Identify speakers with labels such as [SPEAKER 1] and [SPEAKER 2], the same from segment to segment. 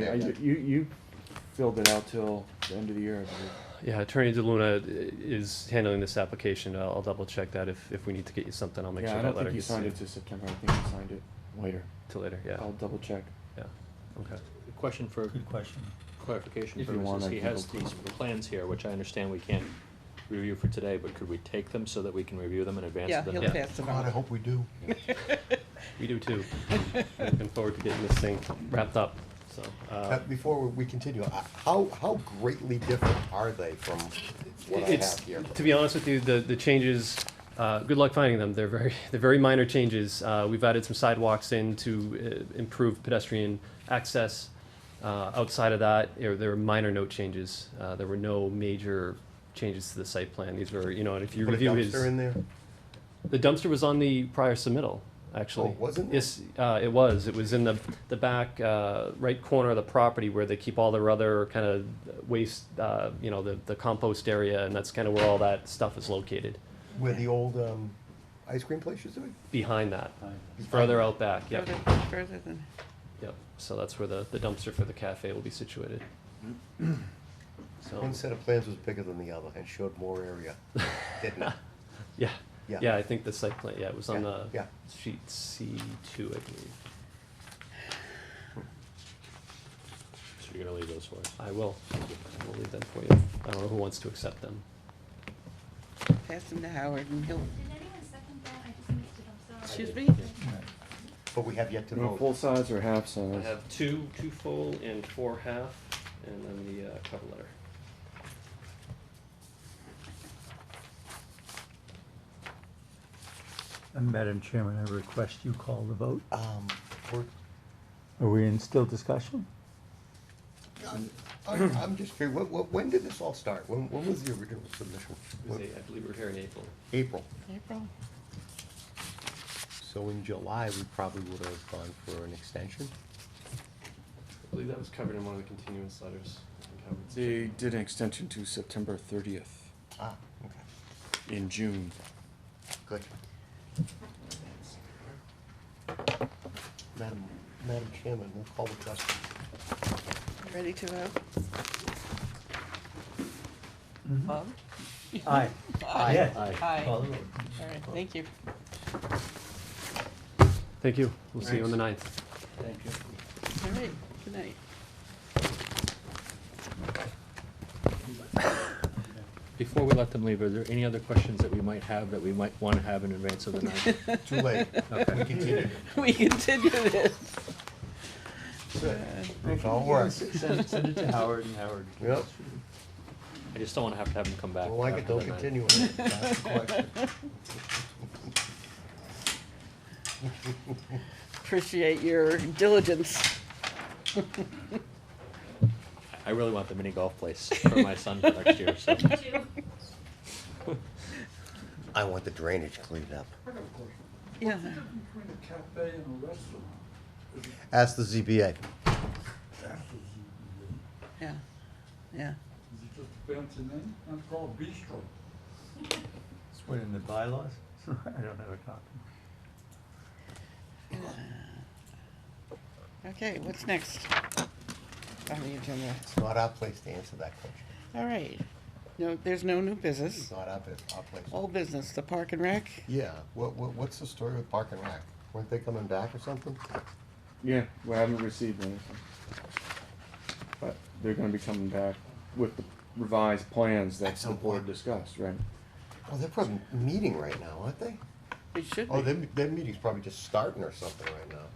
[SPEAKER 1] Yeah.
[SPEAKER 2] I- You, you filled it out till the end of the year, I believe.
[SPEAKER 3] Yeah, Attorney DeLuna i- is handling this application. I'll, I'll double check that. If, if we need to get you something, I'll make
[SPEAKER 2] Yeah,
[SPEAKER 3] sure
[SPEAKER 2] I
[SPEAKER 3] that
[SPEAKER 2] don't
[SPEAKER 3] letter
[SPEAKER 2] think you
[SPEAKER 3] gets
[SPEAKER 2] signed it
[SPEAKER 3] to
[SPEAKER 2] to September, I think you signed it later.
[SPEAKER 3] to later, yeah,
[SPEAKER 2] I'll double check.
[SPEAKER 3] yeah, okay.
[SPEAKER 4] Question for
[SPEAKER 5] Good question.
[SPEAKER 4] clarification
[SPEAKER 2] If you want,
[SPEAKER 4] purposes,
[SPEAKER 2] I
[SPEAKER 4] he
[SPEAKER 2] can
[SPEAKER 4] has
[SPEAKER 2] go-
[SPEAKER 4] these plans here, which I understand we can't review for today, but could we take them so that we can review them in advance
[SPEAKER 6] Yeah,
[SPEAKER 4] of the
[SPEAKER 6] he'll
[SPEAKER 4] next?
[SPEAKER 6] pass them
[SPEAKER 5] God, I
[SPEAKER 6] out.
[SPEAKER 5] hope we do.
[SPEAKER 3] We do too. Looking forward to getting this thing wrapped up, so,
[SPEAKER 5] Uh,
[SPEAKER 3] uh,
[SPEAKER 5] Before we continue, uh, how, how greatly different are they from what I
[SPEAKER 3] It's-
[SPEAKER 5] have here?
[SPEAKER 3] To be honest with you, the, the changes, uh, good luck finding them. They're very, they're very minor changes. Uh, we've added some sidewalks in to uh, improve pedestrian access. Uh, outside of that, there, there were minor note changes. Uh, there were no major changes to the site plan. These were, you know, and if you
[SPEAKER 5] Put a
[SPEAKER 3] review his.
[SPEAKER 5] dumpster in there?
[SPEAKER 3] The dumpster was on the prior submittal, actually.
[SPEAKER 5] Oh, wasn't it?
[SPEAKER 3] Yes, uh, it was. It was in the, the back, uh, right corner of the property where they keep all their other kind of waste, uh, you know, the, the compost area, and that's kind of where all that stuff is located,
[SPEAKER 5] Where the old, um, ice cream place used to be?
[SPEAKER 3] behind that. Further out back, yep,
[SPEAKER 6] Further, further than,
[SPEAKER 3] yep. So that's where the, the dumpster for the cafe will be situated. So,
[SPEAKER 5] One set of plans was bigger than the other and showed more area, didn't it?
[SPEAKER 3] yeah,
[SPEAKER 5] Yeah.
[SPEAKER 3] yeah, I think the site plan, yeah, it was on
[SPEAKER 5] Yeah,
[SPEAKER 3] the
[SPEAKER 5] yeah.
[SPEAKER 3] sheet C two, I believe.
[SPEAKER 4] So you're gonna leave those for us?
[SPEAKER 3] I will, I will leave them for you. I don't know who wants to accept them.
[SPEAKER 6] pass them to Howard and he'll,
[SPEAKER 7] Did anyone second that? I just missed it, I'm sorry.
[SPEAKER 6] excuse me?
[SPEAKER 5] But we have yet to
[SPEAKER 2] You know,
[SPEAKER 5] vote.
[SPEAKER 2] full size or half size?
[SPEAKER 3] I have two, two full and four half, and then the uh, cover letter.
[SPEAKER 8] And Madam Chairman, I request you call the vote.
[SPEAKER 5] Um, we're,
[SPEAKER 8] Are we in still discussion?
[SPEAKER 5] I'm- I'm, I'm just curious, what, what, when did this all start? When, when was the original submission?
[SPEAKER 3] It was a- I believe we're here in April.
[SPEAKER 5] April.
[SPEAKER 6] April?
[SPEAKER 5] So in July, we probably would have gone for an extension?
[SPEAKER 3] I believe that was covered in one of the continuous letters. I think Howard said.
[SPEAKER 2] They did an extension to September thirtieth
[SPEAKER 5] Ah, okay,
[SPEAKER 2] in June.
[SPEAKER 5] good. Madam, Madam Chairman, we'll call the question.
[SPEAKER 6] Ready to vote? Bob?
[SPEAKER 8] Aye. Yes.
[SPEAKER 6] Aye.
[SPEAKER 5] Call
[SPEAKER 6] All
[SPEAKER 5] the roll.
[SPEAKER 6] right, thank you.
[SPEAKER 3] Thank you. We'll see you on the ninth.
[SPEAKER 6] All right, good night.
[SPEAKER 4] Before we let them leave, are there any other questions that we might have that we might wanna have in advance of the night?
[SPEAKER 5] Too late. We continue.
[SPEAKER 6] We continue this.
[SPEAKER 5] It's all works.
[SPEAKER 4] Send, send it to Howard and Howard.
[SPEAKER 5] Yep,
[SPEAKER 4] I just don't wanna have to have them come back.
[SPEAKER 5] well, I
[SPEAKER 4] after
[SPEAKER 5] could go
[SPEAKER 4] the night.
[SPEAKER 5] continue. Ask the question.
[SPEAKER 6] Appreciate your diligence.
[SPEAKER 4] I really want the mini golf place for my son for next year, so.
[SPEAKER 7] Two.
[SPEAKER 5] I want the drainage cleaned up.
[SPEAKER 6] Yeah,
[SPEAKER 9] Between a cafe and a restaurant,
[SPEAKER 5] Ask the ZBA.
[SPEAKER 9] that's what you,
[SPEAKER 6] yeah, yeah.
[SPEAKER 9] you just bouncing in, that's called bistro.
[SPEAKER 8] It's what in the bylaws? I don't have a copy.
[SPEAKER 6] Okay, what's next? On the agenda.
[SPEAKER 5] It's not our place to answer that question.
[SPEAKER 6] All right. No, there's no new
[SPEAKER 5] It's
[SPEAKER 6] business.
[SPEAKER 5] not our, bu- our place.
[SPEAKER 4] Oh.
[SPEAKER 6] Old business, the park and rec?
[SPEAKER 5] Yeah, what, what, what's the story with Park and Rec? Weren't they coming back or something?
[SPEAKER 2] Yeah, we haven't received anything. But they're gonna be coming back with the revised plans that the
[SPEAKER 5] Excellent.
[SPEAKER 2] board discussed, right?
[SPEAKER 5] Oh, they're probably meeting right now, aren't they?
[SPEAKER 6] It should
[SPEAKER 5] Oh,
[SPEAKER 6] be.
[SPEAKER 5] their, their meeting's probably just starting or something right now.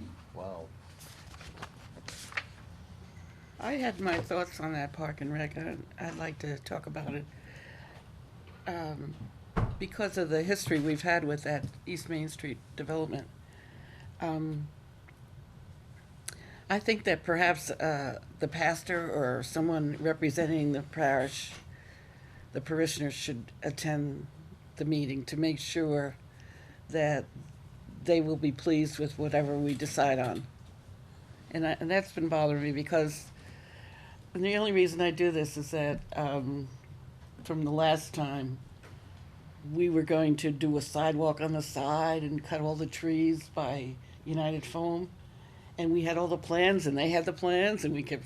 [SPEAKER 5] Wow.
[SPEAKER 6] I had my thoughts on that park and rec, and I'd like to talk about it. Um, Because of the history we've had with that East Main Street development, um, I think that perhaps uh, the pastor or someone representing the parish, the parishioners should attend the meeting to make sure that they will be pleased with whatever we decide on. And I, and that's been bothering me because and the only reason I do this is that um, from the last time, we were going to do a sidewalk on the side and cut all the trees by United Foam. And we had all the plans and they had the plans and we kept